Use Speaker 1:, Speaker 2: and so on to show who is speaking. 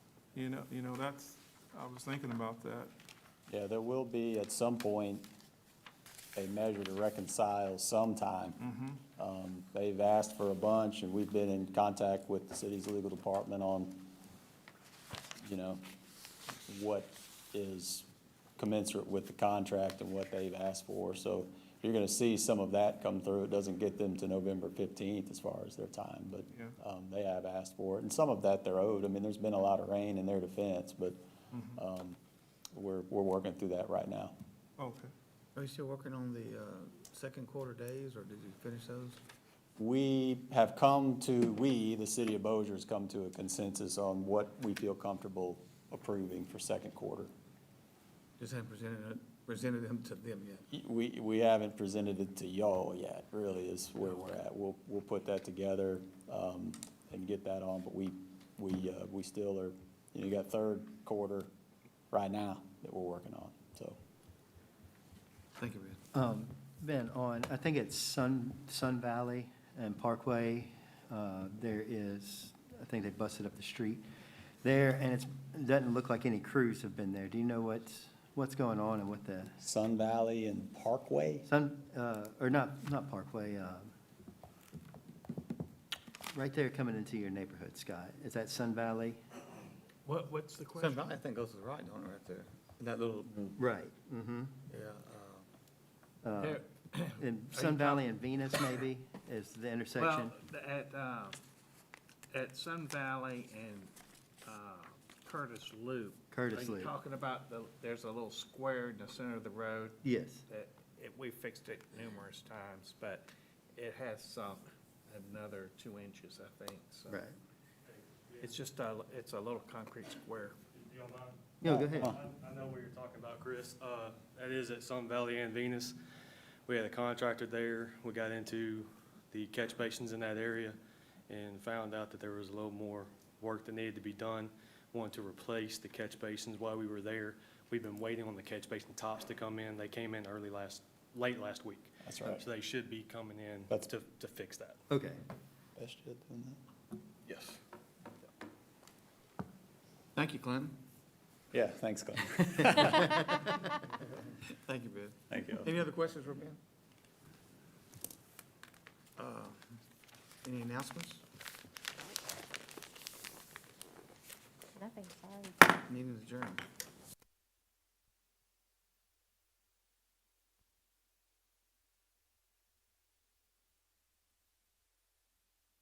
Speaker 1: You know, you know, that's, I was thinking about that.
Speaker 2: Yeah, there will be at some point a measure to reconcile sometime. Um, They've asked for a bunch, and we've been in contact with the city's legal department on, you know, what is commensurate with the contract and what they've asked for. So you're gonna see some of that come through. It doesn't get them to November fifteenth as far as their time, but
Speaker 1: Yeah.
Speaker 2: um, they have asked for it. And some of that they're owed. I mean, there's been a lot of rain in their defense, but um, we're, we're working through that right now.
Speaker 1: Okay.
Speaker 3: Are you still working on the uh, second quarter days, or did you finish those?
Speaker 2: We have come to, we, the city of Bossier, has come to a consensus on what we feel comfortable approving for second quarter.
Speaker 3: Just haven't presented, it- presented them to them yet.
Speaker 2: We, we haven't presented it to y'all yet, really, is where we're at. We'll, we'll put that together, um, and get that on, but we, we, uh, we still are, you know, you got third quarter right now that we're working on, so.
Speaker 3: Thank you, Ben.
Speaker 4: Um, Ben, on, I think it's Sun, Sun Valley and Parkway, uh, there is, I think they busted up the street there, and it's, it doesn't look like any crews have been there. Do you know what's, what's going on and what the,
Speaker 2: Sun Valley and Parkway?
Speaker 4: Sun, uh, or not, not Parkway, uh, right there coming into your neighborhood, Scott, is that Sun Valley?
Speaker 5: What, what's the question?
Speaker 3: Sun Valley, I think, goes to the right, don't it, right there? That little,
Speaker 4: Right. Mm-hmm.
Speaker 3: yeah,
Speaker 4: Uh,
Speaker 5: There-
Speaker 4: and Sun Valley and Venus maybe is the intersection?
Speaker 5: Well, th- at, uh, at Sun Valley and uh, Curtis Loop.
Speaker 4: Curtis
Speaker 5: Are you
Speaker 4: Loop.
Speaker 5: talking about the, there's a little square in the center of the road
Speaker 4: Yes,
Speaker 5: that, it- we fixed it numerous times, but it has sunk another two inches, I think, so.
Speaker 4: right.
Speaker 5: It's just a, it's a little concrete square.
Speaker 6: If you don't mind.
Speaker 4: No, go ahead.
Speaker 6: I I know what you're talking about, Chris. Uh, That is at Sun Valley and Venus. We had a contractor there. We got into the catch basins in that area and found out that there was a little more work that needed to be done. Wanted to replace the catch basins while we were there. We've been waiting on the catch basin tops to come in. They came in early last, late last week.
Speaker 2: That's right.
Speaker 6: So they should be coming in
Speaker 2: That's-
Speaker 6: to, to fix that.
Speaker 4: Okay.
Speaker 2: Best shit doing that.
Speaker 6: Yes.
Speaker 3: Thank you, Clinton.
Speaker 2: Yeah, thanks, Glenn.
Speaker 3: Thank you, Ben.
Speaker 2: Thank you.
Speaker 3: Any other questions for Ben? Uh, Any announcements?
Speaker 7: Nothing, sorry.
Speaker 3: Meeting is adjourned.